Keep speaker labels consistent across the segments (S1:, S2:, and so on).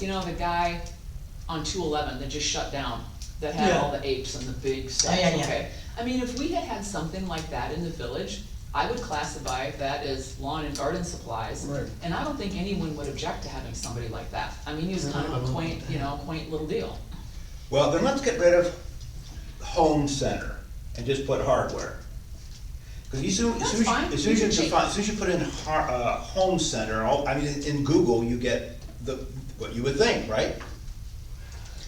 S1: you know, the guy on two eleven that just shut down, that had all the apes and the big sets,
S2: Oh, yeah, yeah.
S1: okay? I mean, if we had had something like that in the village, I would classify that as lawn and garden supplies.
S3: Right.
S1: And I don't think anyone would object to having somebody like that. I mean, he was kind of a quaint, you know, quaint little deal.
S4: Well, then let's get rid of home center and just put hardware. Cause you soon, as soon
S1: That's fine.
S4: as, as soon as you
S1: You can
S4: define, as soon as you put in har, uh, home center, all, I mean, in Google, you get the, what you would think, right?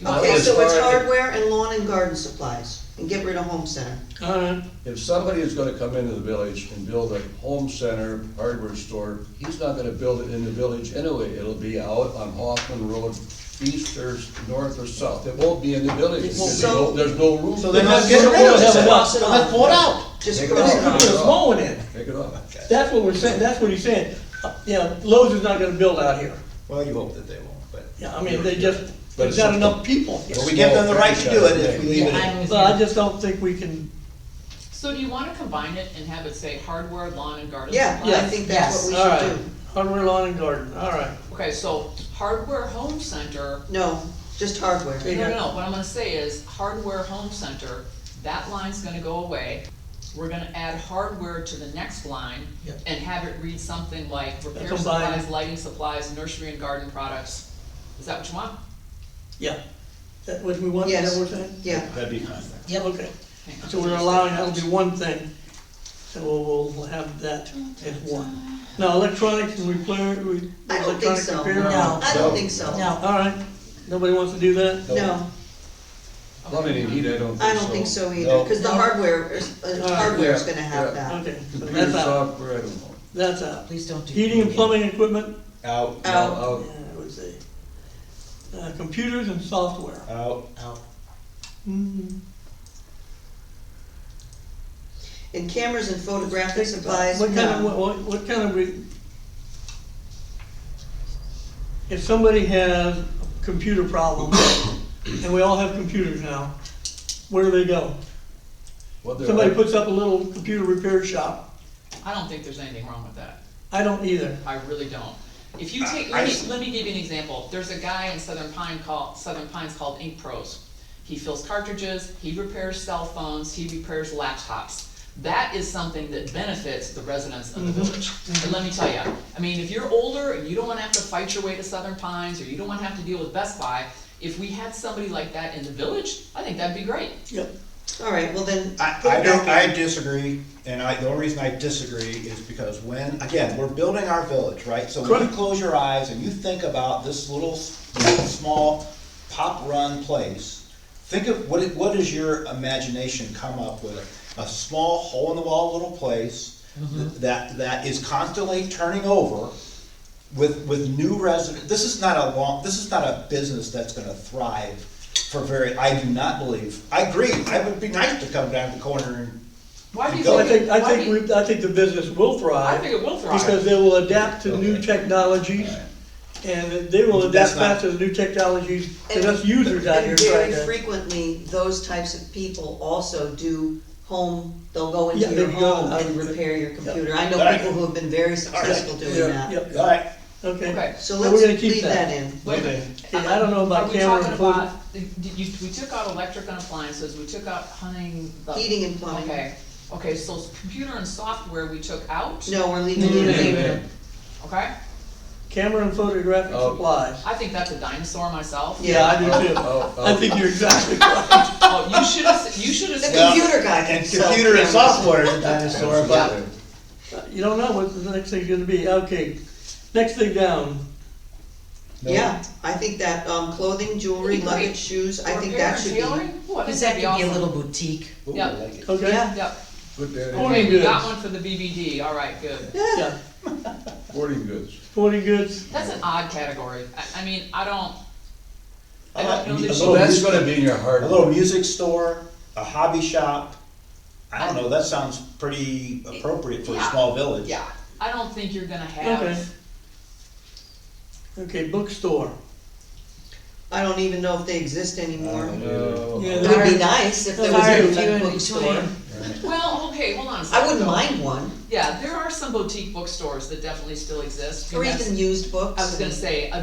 S2: Okay,
S3: as
S2: so it's
S3: far as-
S2: hardware and lawn and garden supplies, and get rid of home center.
S5: Alright,
S3: If somebody is gonna come into the village and build a home center hardware store, he's not gonna build it in the village anyway. It'll be out on Hoffman Road, east or s- north or south. It won't be in the village, because there's no-
S2: So-
S3: there's no room.
S4: So then
S3: for
S4: let's
S3: it.
S4: get rid of it.
S2: Cross it off.
S4: Let's pull it out.
S2: Just
S3: Take it
S2: cross it
S3: off.
S2: off.
S3: Take it
S5: Put a
S3: off.
S5: mowing in,
S3: Take it off.
S5: that's what we're saying, that's what he's saying. Uh, You know, Lowe's is not gonna build out here,
S4: Well, you hope that they won't, but.
S5: Yeah, I mean, they just,
S3: But
S5: there's
S3: it's-
S5: not enough people here.
S4: But we give them the right to do it if we leave it in.
S5: So I just don't think we can,
S1: So do you wanna combine it and have it say hardware, lawn and garden
S2: Yeah,
S1: supplies?
S2: I think that's what we
S5: alright,
S2: should do.
S5: hardware lawn and garden, alright.
S1: Okay, so hardware home center,
S2: No, just hardware.
S1: no, no, no, what I'm gonna say is hardware home center, that line's gonna go away. We're gonna add hardware to the next line
S5: Yep.
S1: and have it read something like repair
S5: Combine.
S1: supplies, lighting supplies, nursery and garden products. Is that what you want?
S5: Yeah, that what we want, is
S2: Yes.
S5: that what we're saying?
S2: Yeah,
S4: That'd be nice.
S5: Yeah. Okay,
S1: Hang on.
S5: so we're allowing, that'll be one thing, so we'll, we'll have that as one. Now, electronics, we clear, we,
S2: I don't think
S5: electronic
S2: so.
S5: computer?
S2: No, I don't
S3: No.
S2: think so.
S6: No.
S5: Alright, nobody wants to do that?
S2: No,
S3: Plumbing and heat, I don't think so.
S2: I don't think so
S3: No.
S2: either, cause the hardware is, uh,
S5: Alright,
S2: hardware's
S3: yeah,
S2: gonna have
S3: yeah.
S2: that.
S5: Okay, so
S3: Computer
S5: that's out,
S3: software, I don't know.
S5: that's out.
S6: Please don't do.
S5: Heating and plumbing equipment,
S4: Out,
S2: Out.
S5: yeah,
S3: Out,
S5: I would say. Uh, computers and software.
S4: out,
S6: Out.
S5: Mm,
S2: And cameras and photographic supplies,
S5: What kind of,
S2: no.
S5: what- what, what kind of, re- if somebody has a computer problem, and we all have computers now, where do they go?
S3: what they're-
S5: Somebody puts up a little computer repair shop,
S1: I don't think there's anything wrong with that.
S5: I don't either.
S1: I really don't. If you take,
S4: I- I
S1: let me,
S4: just-
S1: let me give you an example. There's a guy in Southern Pine called, Southern Pines called Ink Pros. He fills cartridges, he repairs cell phones, he repairs laptops. That is something that benefits the residents of the
S5: Mm-hmm.
S1: village. And let me tell you, I mean, if you're older and you don't wanna have to fight your way to Southern Pines, or you don't wanna have to deal with Best Buy, if we had somebody like that in the village, I think that'd be great.
S5: Yep.
S2: Alright, well then,
S4: I,
S2: put
S4: I
S2: it
S4: don't,
S2: back
S4: I disagree, and I, the only reason I disagree is because when, again, we're building our village, right? So when you
S5: Correct.
S4: close your eyes and you think about this little, s- small, pop-run place, think of, what, it- what does your imagination come up with? A small, hole-in-the-wall little place that, that is constantly turning over with, with new resident, this is not a long, this is not a business that's gonna thrive for very, I do not believe, I agree, I would be nice to come down the corner and,
S1: Why do you
S4: So
S5: I
S1: think,
S5: think, I
S1: why do
S5: think,
S1: you,
S5: we- I think the business will
S1: I
S5: thrive.
S1: think it will thrive.
S5: Because they will adapt to new
S4: Okay.
S5: technologies, and they will adapt
S4: That's not-
S5: fast to the new technologies that
S2: And-
S5: us users out here
S2: And very
S5: try to.
S2: frequently, those types of people also do home, they'll go
S5: Yeah,
S2: into
S5: they
S2: your
S5: go
S2: home
S5: out
S2: and
S5: with it.
S2: repair your computer. I
S4: All
S2: know
S4: right.
S2: people who have been very successful doing that.
S5: Yep,
S4: alright,
S5: okay.
S1: Okay.
S2: So
S5: So we're
S2: let's
S5: gonna keep
S2: leave
S5: that.
S2: that in.
S1: Wait a minute.
S5: Okay, I don't know about
S1: Are we
S5: camera
S1: talking
S5: and photo-
S1: about- did you- we took out electric and appliances, we took out hunting,
S4: Oh.
S1: the.
S2: Heating and plumbing.
S1: Okay, okay, so computer and software we took out,
S2: No, we're leaving
S5: No,
S2: it
S5: no,
S2: in.
S5: no,
S3: no.
S1: okay?
S5: Camera and photographic
S3: Oh.
S5: supplies.
S1: I think that's a dinosaur myself.
S2: Yeah, I
S5: I do too.
S3: Oh, oh.
S5: I think you're exactly right.
S1: Oh, you should have, you should have
S2: The
S1: said,
S4: Well,
S2: computer guy can
S4: and
S2: sell
S4: computer and
S2: cameras.
S4: software is a dinosaur, but,
S5: You don't know what the next thing's gonna be, okay. Next thing down,
S3: No.
S2: Yeah, I think that, um, clothing, jewelry,
S1: That'd be
S2: luggage,
S1: great.
S2: shoes, I think
S1: repair
S2: that
S1: and
S2: should
S1: tailoring?
S2: be.
S1: Ooh, I think
S6: Cause that
S1: that'd be
S6: could be a
S1: awesome.
S6: little boutique.
S4: ooh,
S1: Yeah.
S4: I like it.
S5: okay?
S2: Yeah,
S1: Yep,
S3: Put that in,
S5: Forty
S1: okay, we got
S5: goods.
S1: one for the BBD, all right, good.
S5: Yeah,
S3: sporting goods.
S5: sporting goods,
S1: That's an odd category, I, I mean, I don't, I
S4: I like
S1: don't know
S4: mu-
S1: that
S4: a
S1: you-
S3: So
S4: little
S3: that's
S4: music-
S3: gonna be in your heart.
S4: A little music store, a hobby shop, I don't know, that sounds pretty appropriate for a
S1: Yeah.
S4: small village.
S1: yeah, I don't think you're gonna
S5: Okay.
S1: have,
S5: okay, bookstore.
S2: I don't even know if they exist anymore.
S3: No.
S5: Yeah,
S2: It would
S6: Sorry.
S2: be nice if there was
S6: Sorry,
S2: a
S6: few
S2: good
S6: in
S2: bookstore.
S6: between.
S1: well, okay, hold on a second.
S2: I wouldn't
S1: though.
S2: mind one,
S1: Yeah, there are some boutique bookstores that definitely still exist. I
S2: or
S1: mean, that's-
S2: even used books.
S1: I was gonna say,